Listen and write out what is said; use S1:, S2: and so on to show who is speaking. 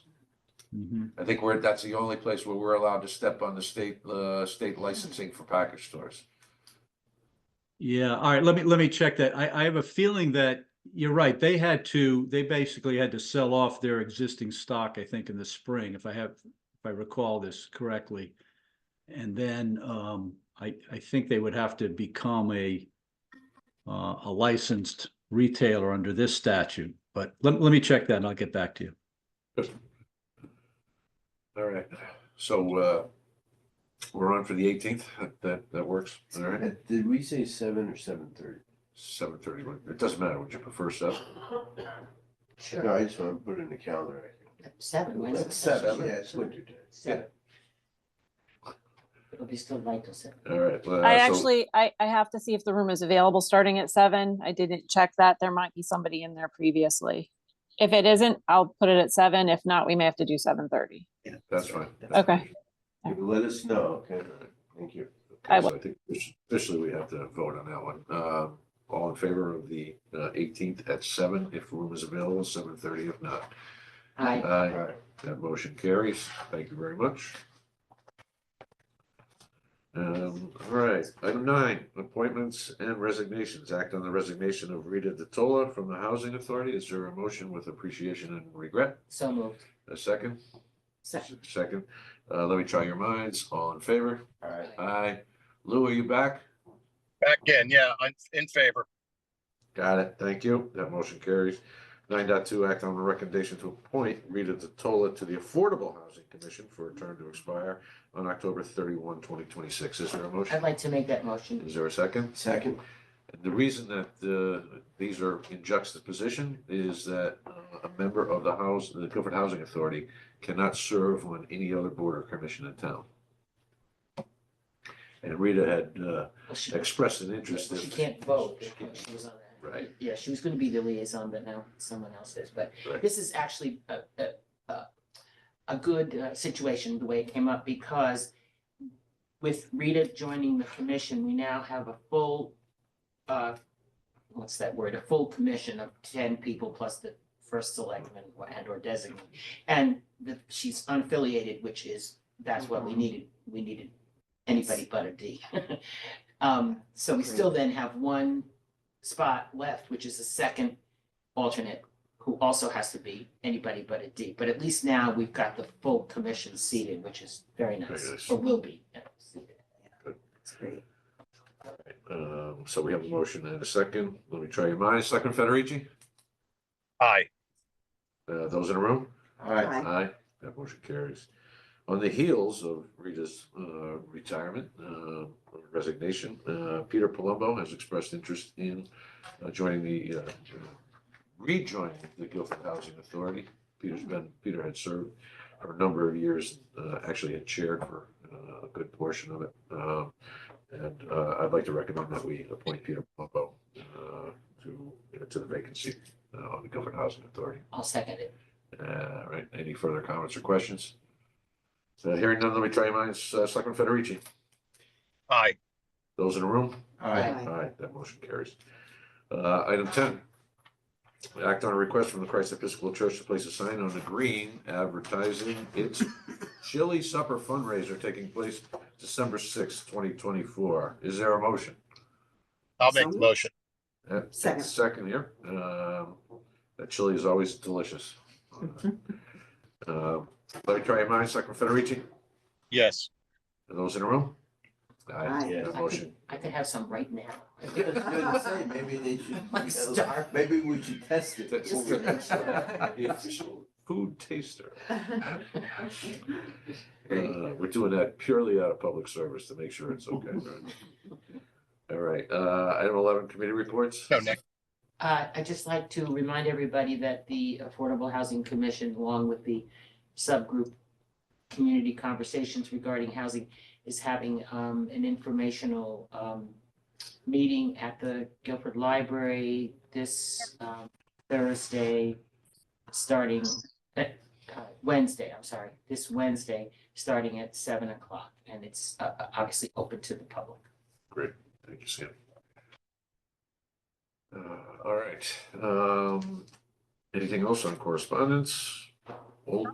S1: Mhm.
S2: I think we're, that's the only place where we're allowed to step on the state, uh, state licensing for package stores.
S1: Yeah, all right, let me, let me check that. I, I have a feeling that you're right. They had to, they basically had to sell off their existing stock, I think, in the spring, if I have, if I recall this correctly. And then, um, I, I think they would have to become a uh, a licensed retailer under this statute, but let, let me check that and I'll get back to you.
S2: All right, so, uh, we're on for the eighteenth, that, that works, all right?
S3: Uh, Did we say seven or seven thirty?
S2: Seven thirty, it doesn't matter what you prefer, Seth.
S3: No,
S4: Sure,
S3: I just wanna put it in the calendar.
S4: seven, when's it?
S3: That's seven,
S2: Seven?
S3: yeah, it's winter time.
S4: Seven. It'll be still light till seven.
S2: All right. uh,
S5: I
S2: so-
S5: actually, I, I have to see if the room is available starting at seven. I didn't check that. There might be somebody in there previously. If it isn't, I'll put it at seven. If not, we may have to do seven thirty.
S2: That's fine.
S5: Okay.
S3: You Let us know, okay? Thank you.
S5: I
S2: So I think officially we have to vote on that one. Uh, all in favor of the uh, eighteenth at seven, if room is available, seven thirty if not.
S4: Aye.
S3: All
S2: Aye,
S3: right.
S2: that motion carries. Thank you very much. Um, all right, item nine, appointments and resignations. Act on the resignation of Rita DeTola from the Housing Authority. Is there a motion with appreciation and regret?
S4: So moved.
S2: A second?
S4: Second.
S2: Second. Uh, let me try your minds. All in favor?
S3: All right.
S2: Aye. Lou, are you back?
S6: Back in, yeah, I'm in favor.
S2: Got it. Thank you. That motion carries. Nine point two. act on the recommendation to appoint Rita Tola to the Affordable Housing Commission for a term to expire on October 31, 2026. Is there a
S4: I'd
S2: motion?
S4: like to make that motion.
S2: Is there a second?
S3: Second,
S2: And The reason that, uh, these are in juxtaposition is that uh, a member of the House, the Guilford Housing Authority cannot serve on any other board or commission in town. And Rita had, uh,
S4: Well, She
S2: expressed an interest.
S4: she
S2: in-
S4: can't vote.
S2: She can't.
S4: She was on that.
S2: Right.
S4: Yeah, she was gonna be the liaison, but now someone else is, but
S2: Right.
S4: this is actually a, a, a, a good uh, situation, the way it came up, because with Rita joining the commission, we now have a full, uh, what's that word, a full commission of ten people plus the first selectman and or designate. And the, she's unaffiliated, which is, that's what we needed, we needed anybody but a D. Um, so we still then have one spot left, which is the second alternate, who also has to be anybody but a D. But at least now we've got the full commission seated, which is very
S2: Very
S4: nice,
S2: nice.
S4: or will be. yeah, seated.
S2: Good.
S4: It's great.
S2: Um, so we have a motion and a second. Let me try your minds. Second Federici,
S6: Aye,
S2: uh, those in the room?
S3: all right.
S2: Aye. That motion carries. On the heels of Rita's, uh, retirement, uh, resignation, uh, Peter Palumbo has expressed interest in uh, joining the, uh, rejoining the Guilford Housing Authority. Peter's been, Peter had served for a number of years, uh, actually had chaired for, uh, a good portion of it. Um, and, uh, I'd like to recommend that we appoint Peter Palumbo, uh, to, to the vacancy uh, on the Guilford Housing Authority.
S4: I'll second it.
S2: Uh, right, any further comments or questions? So hearing none, let me try your minds, uh, Selectman Federici,
S6: aye,
S2: those in the room?
S3: All right.
S4: Aye.
S2: Aye, that motion carries. Uh, item ten. Act on a request from the Christ Episcopal Church to place a sign on the green advertising its chili supper fundraiser taking place December sixth, twenty twenty-four. Is there a motion?
S6: I'll make the motion.
S2: Uh,
S7: Second.
S2: Second here, um, that chili is always delicious. Um, let me try your minds, Selectman Federici?
S6: Yes,
S2: Are those in the room?
S7: Aye.
S4: I
S2: That
S4: could-
S2: motion,
S4: I could have some right now.
S3: I was gonna say, maybe they should.
S4: I'm starving.
S3: Maybe we should test it.
S2: That's
S4: Just to make
S2: Yeah,
S4: sure.
S2: food taster. Uh, We're doing that purely out of public service to make sure it's okay. right? All right, uh, item eleven, committee reports.
S6: no, Nick,
S4: Uh, I'd just like to remind everybody that the Affordable Housing Commission, along with the subgroup Community Conversations Regarding Housing, is having, um, an informational, um, meeting at the Guilford Library this, um, Thursday, starting, uh, uh, Wednesday, I'm sorry, this Wednesday, starting at seven o'clock. And it's, uh, uh, obviously open to the public.
S2: Thank you, Sam. Uh, all right, um, anything else on correspondence? Old